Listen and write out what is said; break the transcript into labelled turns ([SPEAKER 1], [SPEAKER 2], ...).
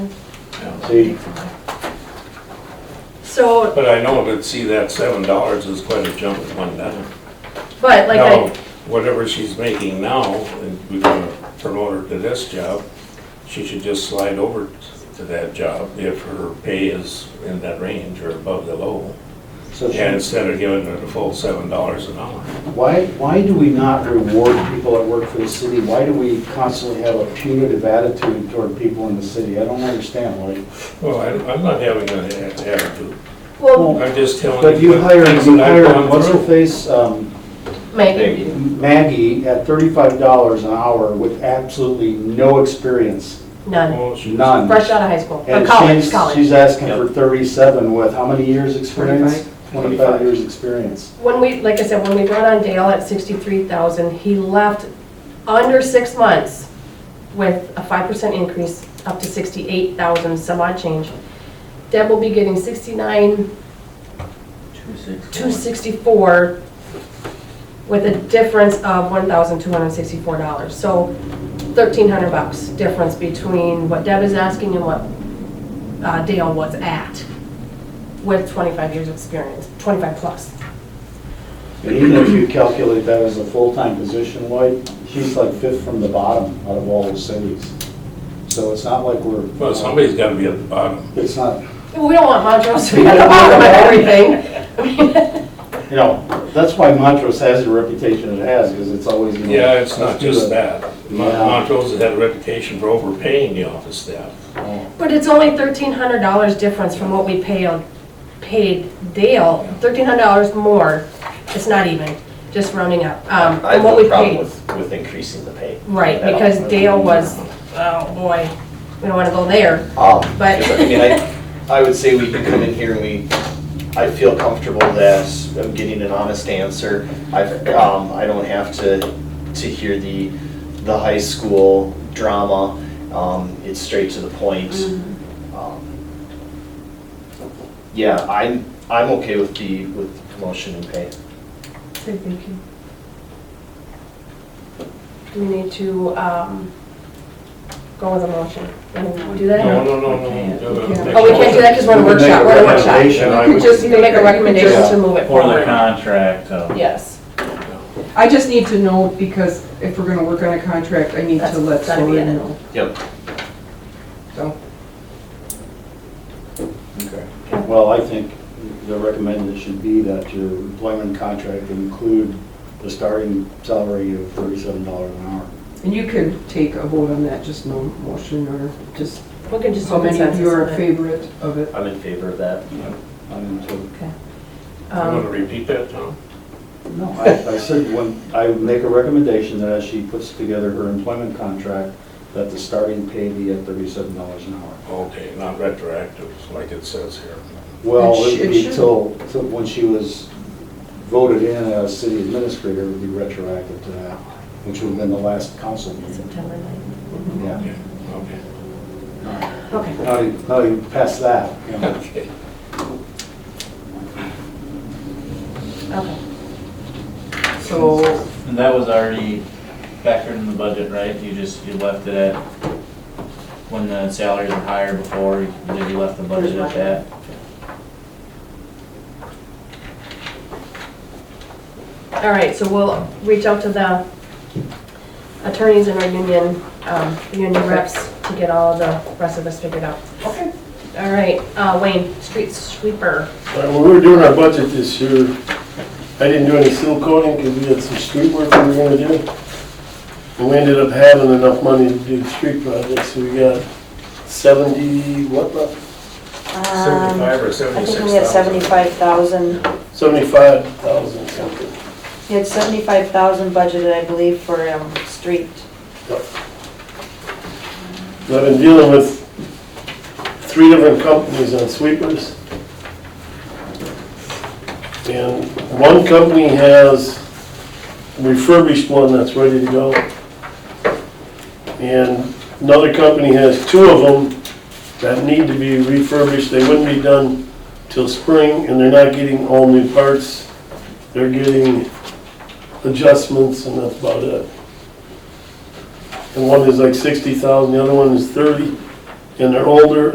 [SPEAKER 1] See,
[SPEAKER 2] So,
[SPEAKER 3] But I know that, see, that seven dollars is quite a jump in one time.
[SPEAKER 2] but like
[SPEAKER 3] Now,
[SPEAKER 2] I,
[SPEAKER 3] whatever she's making now, and we're gonna promote her to this job, she should just slide over to that job if her pay is in that range or above the low.
[SPEAKER 1] so
[SPEAKER 3] And
[SPEAKER 1] she-
[SPEAKER 3] instead of giving her the full seven dollars an hour.
[SPEAKER 1] why, why do we not reward people that work for the city? Why do we constantly have a punitive attitude toward people in the city? I don't understand, like,
[SPEAKER 3] Well, I, I'm not having an attitude.
[SPEAKER 2] well,
[SPEAKER 1] Well,
[SPEAKER 3] I'm just telling you.
[SPEAKER 1] but you
[SPEAKER 3] what
[SPEAKER 1] hired,
[SPEAKER 3] things
[SPEAKER 1] you
[SPEAKER 3] that I've
[SPEAKER 1] hired,
[SPEAKER 3] gone
[SPEAKER 1] what's her
[SPEAKER 3] through.
[SPEAKER 1] face, um,
[SPEAKER 2] Megan,
[SPEAKER 1] Maggie at thirty-five dollars an hour with absolutely no experience,
[SPEAKER 2] none,
[SPEAKER 3] Well, Oh, she's-
[SPEAKER 1] none.
[SPEAKER 2] fresh out of high school, or
[SPEAKER 1] And
[SPEAKER 2] college,
[SPEAKER 1] she's-
[SPEAKER 2] college.
[SPEAKER 1] She's asking for thirty-seven with how many years' experience? Twenty-five years' experience.
[SPEAKER 2] When we, like I said, when we brought on Dale at sixty-three thousand, he left under six months with a five percent increase up to sixty-eight thousand, some odd change. Deb will be getting sixty-nine, two sixty-four with a difference of one thousand two hundred and sixty-four dollars. So thirteen hundred bucks difference between what Deb is asking and what uh, Dale was at with twenty-five years experience, twenty-five plus.
[SPEAKER 1] And even if you calculate that as a full-time position, Lloyd, she's like fifth from the bottom out of all the cities. So it's not like we're.
[SPEAKER 3] Well, somebody's gotta be at the bottom.
[SPEAKER 1] It's not,
[SPEAKER 2] Well, We don't want Montrose to be at the bottom of everything. I mean,
[SPEAKER 1] you know, that's why Montrose has the reputation it has, because it's always. you know,
[SPEAKER 3] Yeah, it's not
[SPEAKER 1] let's do
[SPEAKER 3] just
[SPEAKER 1] it.
[SPEAKER 3] that. Mon-
[SPEAKER 1] Yeah.
[SPEAKER 3] Montrose has had a reputation for overpaying the office staff.
[SPEAKER 1] Oh.
[SPEAKER 2] But it's only thirteen hundred dollars difference from what we paid, paid Dale, thirteen hundred dollars more, it's not even, just rounding up, um,
[SPEAKER 4] I have
[SPEAKER 2] what we
[SPEAKER 4] no
[SPEAKER 2] paid.
[SPEAKER 4] problem with, with increasing the pay.
[SPEAKER 2] Right,
[SPEAKER 4] at all.
[SPEAKER 2] because Dale was, oh boy, we don't want to go there,
[SPEAKER 4] Um,
[SPEAKER 2] but-
[SPEAKER 4] because, I mean, I, I would say we could come in here and we, I feel comfortable that I'm getting an honest answer. I've, um, I don't have to, to hear the, the high school drama. Um, it's straight to the point.
[SPEAKER 2] Mm-hmm.
[SPEAKER 4] Um, Yeah, I'm, I'm okay with the, with the promotion and pay.
[SPEAKER 2] Do we need to um, go with a motion? Can we do that?
[SPEAKER 3] No, no, no, no.
[SPEAKER 2] Oh, we can't do that because we're in a
[SPEAKER 1] We can
[SPEAKER 2] workshop,
[SPEAKER 1] make a
[SPEAKER 2] we're in a workshop.
[SPEAKER 1] recommendation.
[SPEAKER 3] I would-
[SPEAKER 2] Just to make a recommendation to move it
[SPEAKER 5] For the
[SPEAKER 2] forward.
[SPEAKER 5] contract, uh,
[SPEAKER 2] Yes.
[SPEAKER 6] I just need to know, because if we're gonna work on a contract, I need to
[SPEAKER 2] That's
[SPEAKER 6] let
[SPEAKER 2] gotta be
[SPEAKER 6] Soren
[SPEAKER 2] in it.
[SPEAKER 6] know.
[SPEAKER 4] Yep.
[SPEAKER 6] So,
[SPEAKER 1] Well, I think the recommendation should be that your employment contract include the starting salary of thirty-seven dollars an hour.
[SPEAKER 6] And you can take a vote on that, just no motion or just
[SPEAKER 2] We can just do
[SPEAKER 6] how many of you are
[SPEAKER 2] consensus on it.
[SPEAKER 6] favorite of it.
[SPEAKER 4] I'm in favor of that.
[SPEAKER 1] I'm to-
[SPEAKER 3] You wanna
[SPEAKER 2] Um,
[SPEAKER 3] repeat that, Tom?
[SPEAKER 1] No, I, I said, when, I make a recommendation that as she puts together her employment contract, that the starting pay be at thirty-seven dollars an hour.
[SPEAKER 3] Okay, not retroactive, like it says here.
[SPEAKER 1] Well,
[SPEAKER 6] It sh-
[SPEAKER 1] it'd
[SPEAKER 6] it
[SPEAKER 1] be
[SPEAKER 6] should.
[SPEAKER 1] till, till when she was voted in as city administrator, it would be retroactive to that, which would have been the last council meeting.
[SPEAKER 2] September ninth.
[SPEAKER 1] Yeah. e,
[SPEAKER 3] Okay, okay.
[SPEAKER 2] Okay.
[SPEAKER 1] Now you, now you pass that, you know.
[SPEAKER 3] Okay.
[SPEAKER 2] Okay.
[SPEAKER 6] So,
[SPEAKER 5] and that was already factored in the budget, right? You just, you left it at, when the salaries were higher before, you- then you left the budget at that?
[SPEAKER 2] All right, so we'll reach out to the attorneys in our union, um, union reps to get all the rest of us figured out.
[SPEAKER 6] okay,
[SPEAKER 2] All right, uh, Wayne, street sweeper.
[SPEAKER 7] All right, When we were doing our budget this year, I didn't do any seal coating because we had some street work we were gonna do. And we ended up having enough money to do the street project, so we got seventy, what, the-
[SPEAKER 8] Um,
[SPEAKER 3] Seventy-five or
[SPEAKER 8] I
[SPEAKER 3] seventy-six
[SPEAKER 8] think
[SPEAKER 3] thousand?
[SPEAKER 8] we had seventy-five thousand,
[SPEAKER 7] seventy-five thousand something.
[SPEAKER 8] we had seventy-five thousand budgeted, I believe, for, um, street.
[SPEAKER 7] So I've been dealing with three different companies on sweepers. And one company has a refurbished one that's ready to go. And another company has two of them that need to be refurbished. They wouldn't be done till spring, and they're not getting all new parts. They're getting adjustments, and that's about it. And one is like sixty thousand, the other one is thirty, and they're older,